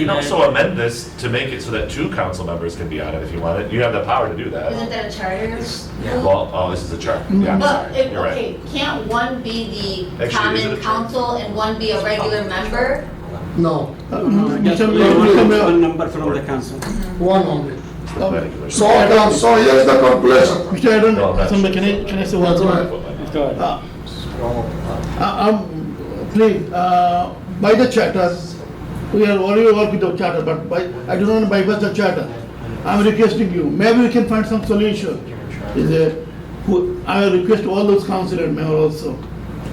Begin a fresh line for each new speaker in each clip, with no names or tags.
You can also amend this to make it so that two council members can be on it if you want it. You have the power to do
Isn't
that.
that a charter? rule?
Well, oh, this is a chart.
Mm-hmm.
Yeah, I'm
But,
sorry.
if-
You're right.
okay, can't one be the
Actually, is it a charter?
common council and one be a regular member?
No, uh,
Oh, Just
Mr.
only
Mayor, Mr.
one one
Mayor,
number from the council.
one only.
Regular.
Oh, So,
I don't,
Adam,
so here's the conclusion.
Mr. Adam,
No, that's-
somebody, can I, can I say one word? Uh, uh, um, please, uh, by the charter, we are already work with the charter, but by, I do not know by what the charter. I'm requesting you, maybe we can find some solution. Is it, who, I request all those councillor member also.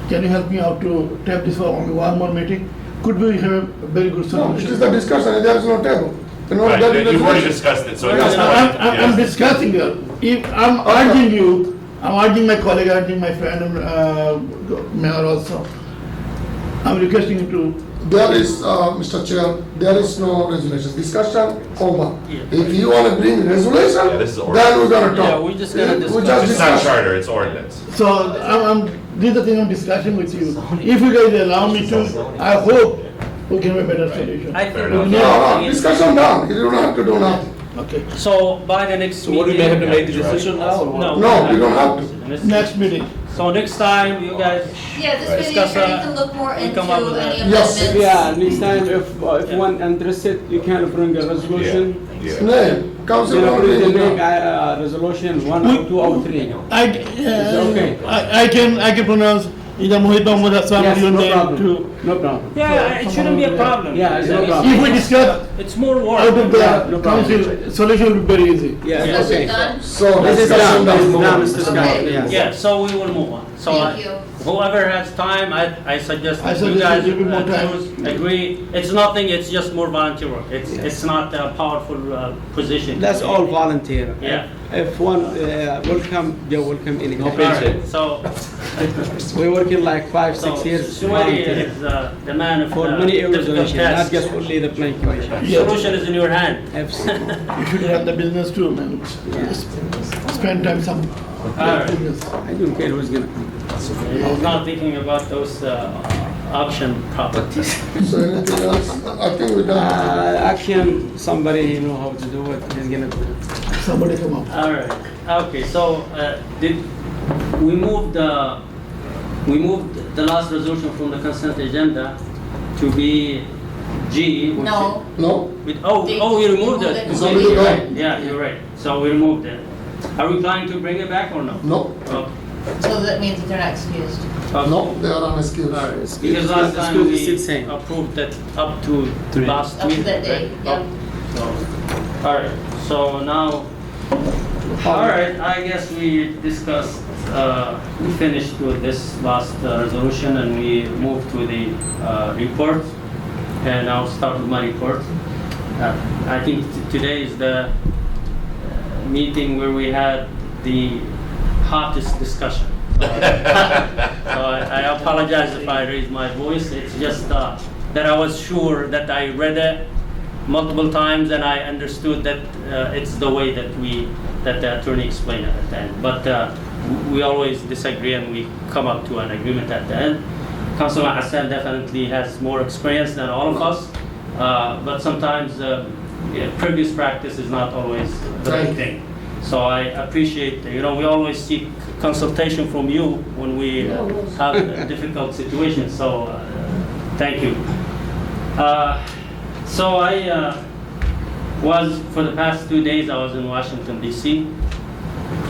Can you help me out to tap this for only one more meeting? Could we have a very good
No, it
solution?
is the discussion, there is no table. You know,
Right,
Oh,
there is
you've already
resolution.
discussed it, so at
No,
this
no,
I'm,
point,
I'm- I'm
yes.
discussing it. If, I'm urging you, I'm urging my colleague, urging my friend, uh, mayor also. I'm requesting you to,
There is, uh, Mr. Chair, there is no resolution, discussion over. If you wanna bring resolution,
Yeah, this is order.
then we're gonna talk.
Yeah, we just gotta
We
discuss.
just
It's not
discuss.
charter, it's ordinance.
so I'm, I'm, these are things I'm discussing with you. If you guys allow me to, I hope we can have a better solution.
I think
Fair
we
enough.
need
No,
to
no,
begin.
discussion done, you don't have to do nothing.
Okay,
So by the next
So what do they have to
meeting.
make the decision now? or what?
No.
No, we don't have to.
next meeting.
So next time, you guys,
Yeah, this way the
Discuss,
attorney
uh,
can look more
we
into
come up with
any
that.
Yes.
amendments.
Yeah, next time if, uh, if one interested, you can bring a
Yeah,
resolution.
yeah.
Name,
You
council,
know,
don't
bring the
bring
name,
it.
uh, resolution, one or two or three.
I,
okay?
uh, I, I can, I can pronounce either Mohit Mahmood Hassan,
Yes,
your
no
name too.
problem, no problem.
yeah, it shouldn't be a problem.
Yeah, it's no problem.
If we discuss
It's more
out of
work.
Yeah, no
the
problem.
council, solution will be very easy.
Yeah,
Is it
okay.
done?
So,
This is
discussion
done, this is
done.
done, Mr. Scott,
Okay.
yes.
Yeah, so we will move on. So
Thank
I-
you.
whoever has time, I, I suggest
I
that you
suggest
guys
you give more
uh,
time.
choose, agree. It's nothing, it's just more volunteer work. It's, it's not a powerful uh, position.
That's all volunteer.
Yeah.
If one, uh, welcome, they welcome
No
All
anytime.
paycheck.
right, so,
We working like five,
so
six years
Suwaidi
volunteer.
is uh, the man of
For
the
many
difficult
resolution, not
tasks.
just only the planning commission.
Yeah.
Solution is in your hand.
Absolutely.
You should run the business too, man. Just Spend time some.
Alright.
business.
I don't care who's gonna come.
He's not thinking about those uh, option properties.
So anything else? I think we done.
Uh, action, somebody he know how to do it, he's gonna do it.
Somebody come up.
All right, okay, so, uh, did, we moved, uh, we moved the last resolution from the consent agenda to be G.
No,
No?
With, oh,
They-
oh, we
they
removed
moved
it.
it.
It's already
You're
gone.
right. Yeah, you're right, so we removed it. Are we planning to bring it back or no?
No,
Oh,
so that means that they're not excused.
Uh,
okay.
no, they are unexcused.
All right,
Excuse-
because last time
excuse is
we
still same.
approved that up to
Three.
last
Up
week.
to that day,
right?
yeah.
Up- so, All right, so now, all right, I guess we discussed, uh, we finished with this last uh, resolution and we moved to the uh, report. And I'll start with my report. Uh, I think t- today is the uh, meeting where we had the hottest discussion. So I I apologize if I raise my voice, it's just uh, that I was sure that I read it multiple times and I understood that uh, it's the way that we, that the attorney explained it at the end. But uh, we always disagree and we come up to an agreement at the end. Councilman Hassan definitely has more experience than all of us, uh, but sometimes uh, yeah, previous practice is not always the right
Right.
thing. So I appreciate, you know, we always seek consultation from you when we uh, have a difficult situations, so uh, thank you. Uh, So I uh, was, for the past two days, I was in Washington DC.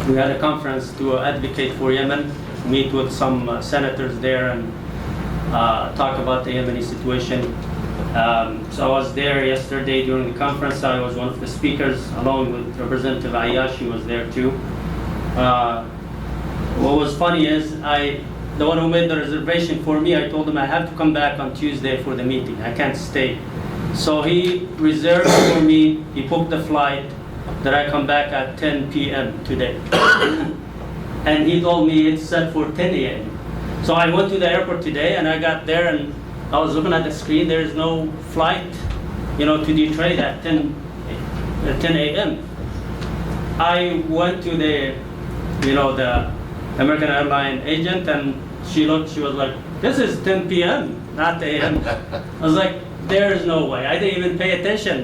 We had a conference to advocate for Yemen, meet with some uh, senators there and uh, talk about the Yemeni situation. Um, So I was there yesterday during the conference, I was one of the speakers, along with Representative Ayashi was there too. Uh, What was funny is, I, the one who made the reservation for me, I told him I have to come back on Tuesday for the meeting, I can't stay. So he reserved for me, he booked the flight, that I come back at 10 PM today. And he told me it's set for 10 AM. So I went to the airport today and I got there and I was looking at the screen, there is no flight, you know, to Detroit at 10, uh, 10 a.m. I went to the, you know, the American airline agent and she looked, she was like, this is 10 p.m., not a.m. I was like, there is no way. I didn't even pay attention.